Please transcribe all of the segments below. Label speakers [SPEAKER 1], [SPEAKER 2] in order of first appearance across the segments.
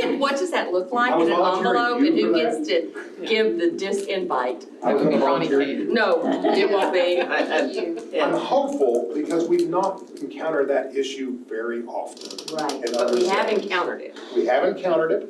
[SPEAKER 1] that look like
[SPEAKER 2] I was
[SPEAKER 1] in an
[SPEAKER 2] volunteering
[SPEAKER 1] envelope
[SPEAKER 2] you
[SPEAKER 1] and who
[SPEAKER 2] for
[SPEAKER 1] gets to give the disinvite?
[SPEAKER 2] I was gonna volunteer you.
[SPEAKER 1] No, it won't be.
[SPEAKER 2] I'm hopeful because we've not encountered that issue very often.
[SPEAKER 1] Right,
[SPEAKER 2] in
[SPEAKER 1] but
[SPEAKER 2] other
[SPEAKER 1] we have
[SPEAKER 2] settings.
[SPEAKER 1] encountered it.
[SPEAKER 2] We have encountered it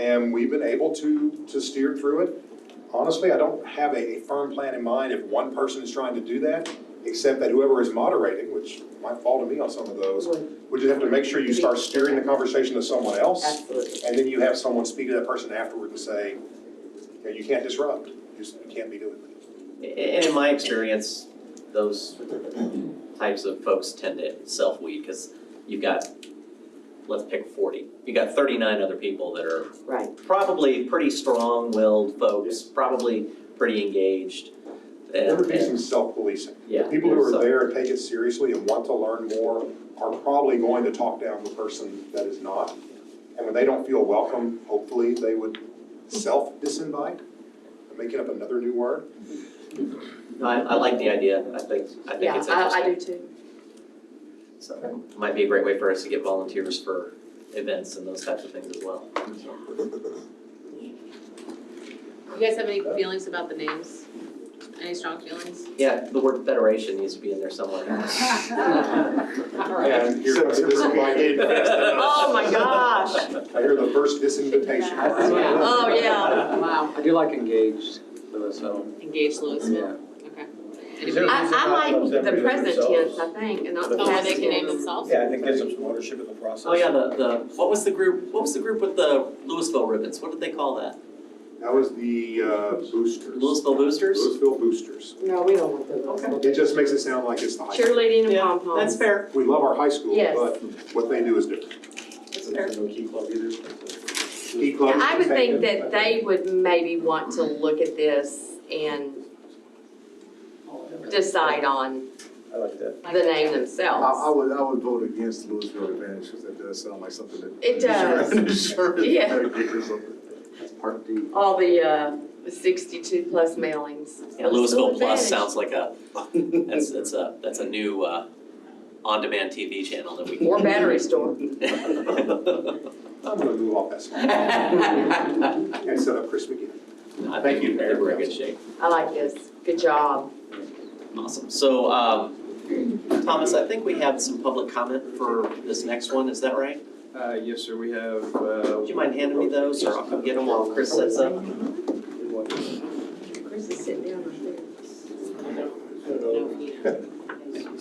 [SPEAKER 2] and we've been able to, to steer through it. Honestly, I don't have a firm plan in mind if one person is trying to do that, except that whoever is moderating, which might fall to me on some of those, would just have to make sure you start steering the conversation to someone else.
[SPEAKER 1] Absolutely.
[SPEAKER 2] And then you have someone speak to that person afterward and say, you know, you can't disrupt, you just, you can't be doing that.
[SPEAKER 3] And in my experience, those types of folks tend to self-weed, because you've got, let's pick forty, you've got thirty-nine other people that are
[SPEAKER 1] Right.
[SPEAKER 3] probably pretty strong-willed folks, probably pretty engaged.
[SPEAKER 2] There would
[SPEAKER 3] and-
[SPEAKER 2] be
[SPEAKER 3] and-
[SPEAKER 2] some self-policing.
[SPEAKER 3] Yeah.
[SPEAKER 2] People who
[SPEAKER 3] so-
[SPEAKER 2] are there and take it seriously and want to learn more are probably going to talk down the person that is not. And when they don't feel welcome, hopefully they would self-disinvite. I'm making up another new word.
[SPEAKER 3] No, I, I like the idea, I think, I think
[SPEAKER 1] Yeah,
[SPEAKER 3] it's
[SPEAKER 1] I, I
[SPEAKER 3] interesting,
[SPEAKER 1] do too.
[SPEAKER 3] so, it might be a great way for us to get volunteers for events and those types of things as well.
[SPEAKER 4] You guys have any feelings about the names? Any strong feelings?
[SPEAKER 3] Yeah, the word federation needs to be in there somewhere.
[SPEAKER 2] And here comes disinvited.
[SPEAKER 1] Oh, my gosh.
[SPEAKER 2] I hear the first disinvitation.
[SPEAKER 4] Yeah.
[SPEAKER 1] Oh, yeah.
[SPEAKER 4] Wow.
[SPEAKER 5] I do like engaged, though, so,
[SPEAKER 4] Engage
[SPEAKER 5] yeah.
[SPEAKER 4] Louisville, okay.
[SPEAKER 1] I,
[SPEAKER 4] Anybody-
[SPEAKER 1] I like the present tense, I think, and not the
[SPEAKER 4] Oh, where they
[SPEAKER 1] past
[SPEAKER 4] can name
[SPEAKER 1] tense.
[SPEAKER 4] themselves?
[SPEAKER 6] Yeah, I think gives them some ownership of the process.
[SPEAKER 3] Oh yeah, the, the, what was the group, what was the group with the Louisville ribbons, what did they call that?
[SPEAKER 2] That was the uh, boosters.
[SPEAKER 3] Louisville Boosters?
[SPEAKER 2] Louisville boosters.
[SPEAKER 1] No, we don't want those.
[SPEAKER 2] It just makes it sound like it's the high school.
[SPEAKER 1] Cheerleading and
[SPEAKER 3] Yeah,
[SPEAKER 1] pom poms.
[SPEAKER 3] That's fair,
[SPEAKER 2] We love our high school,
[SPEAKER 1] Yes.
[SPEAKER 2] but what they do is different.
[SPEAKER 3] that's fair.
[SPEAKER 2] Key club
[SPEAKER 1] I would think
[SPEAKER 2] protected.
[SPEAKER 1] that they would maybe want to look at this and decide on
[SPEAKER 6] I like that.
[SPEAKER 1] the name
[SPEAKER 7] I,
[SPEAKER 1] themselves.
[SPEAKER 7] I would, I would vote against Louisville Advantage, because that does sound like something that.
[SPEAKER 1] It does.
[SPEAKER 7] Insurance
[SPEAKER 1] Yeah.
[SPEAKER 7] company or something.
[SPEAKER 5] Part D.
[SPEAKER 1] all the uh, sixty-two plus mailings.
[SPEAKER 3] Yeah, Louisville Plus
[SPEAKER 1] Advantage.
[SPEAKER 3] sounds like a, that's, that's a, that's a new, uh, on-demand TV channel that we can.
[SPEAKER 1] Or battery store.
[SPEAKER 2] I'm gonna move off that slide and set up Chris McGinn.
[SPEAKER 3] I
[SPEAKER 2] Thank
[SPEAKER 3] think
[SPEAKER 2] you, Mayor.
[SPEAKER 3] we're in good shape,
[SPEAKER 1] I like this. Good job.
[SPEAKER 3] awesome, so, um, Thomas, I think we have some public comment for this next one, is that right?
[SPEAKER 5] Uh, yes, sir, we have, uh.
[SPEAKER 3] Would you mind handing me those, or I'll come get them while Chris sets up?
[SPEAKER 1] Chris is sitting down right there.
[SPEAKER 6] uh,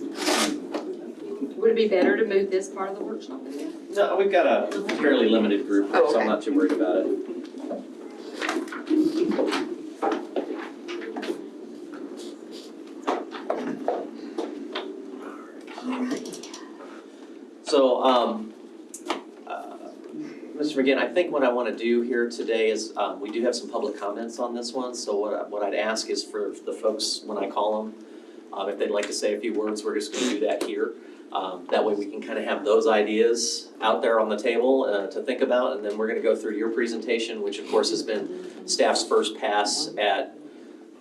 [SPEAKER 1] Would it be better to move this part of the workshop in there?
[SPEAKER 3] No, we've got a fairly limited group,
[SPEAKER 1] Oh,
[SPEAKER 3] so
[SPEAKER 1] okay.
[SPEAKER 3] I'm not too worried about it. So, um, uh, Mr. McGinn, I think what I want to do here today is, um, we do have some public comments on this one, so what I, what I'd ask is for the folks, when I call them, um, if they'd like to say a few words, we're just gonna do that here. Um, that way we can kind of have those ideas out there on the table uh, to think about, and then we're gonna go through your presentation, which of course has been staff's first pass at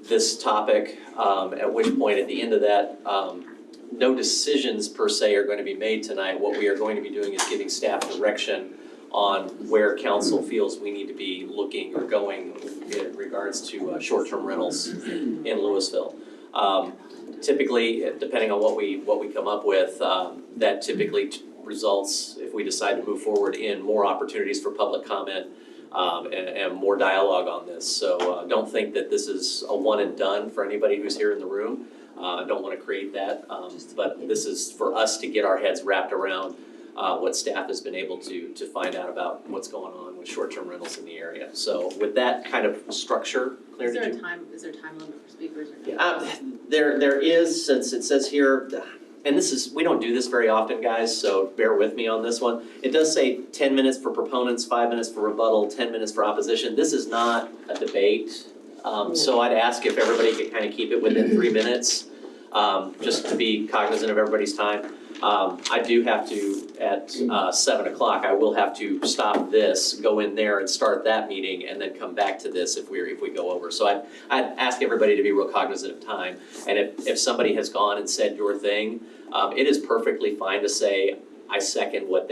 [SPEAKER 3] this topic, um, at which point at the end of that, um, no decisions per se are gonna be made tonight. What we are going to be doing is giving staff direction on where council feels we need to be looking or going in regards to uh, short-term rentals in Louisville. Um, typically, depending on what we, what we come up with, um, that typically t- results, if we decide to move forward, in more opportunities for public comment um, and, and more dialogue on this. So uh, don't think that this is a one and done for anybody who's here in the room. Uh, I don't want to create that, um, but this is for us to get our heads wrapped around uh, what staff has been able to, to find out about what's going on with short-term rentals in the area. So with that kind of structure, Claire,
[SPEAKER 4] Is
[SPEAKER 3] did you?
[SPEAKER 4] there a time, is there a time limit for speakers or no?
[SPEAKER 3] Um, there, there is, since it says here, and this is, we don't do this very often, guys, so bear with me on this one. It does say ten minutes for proponents, five minutes for rebuttal, ten minutes for opposition. This is not a debate. Um, so I'd ask if everybody could kind of keep it within three minutes, um, just to be cognizant of everybody's time. Um, I do have to, at, uh, seven o'clock, I will have to stop this, go in there and start that meeting, and then come back to this if we're, if we go over. So I, I'd ask everybody to be real cognizant of time, and if, if somebody has gone and said your thing, um, it is perfectly fine to say, I second what they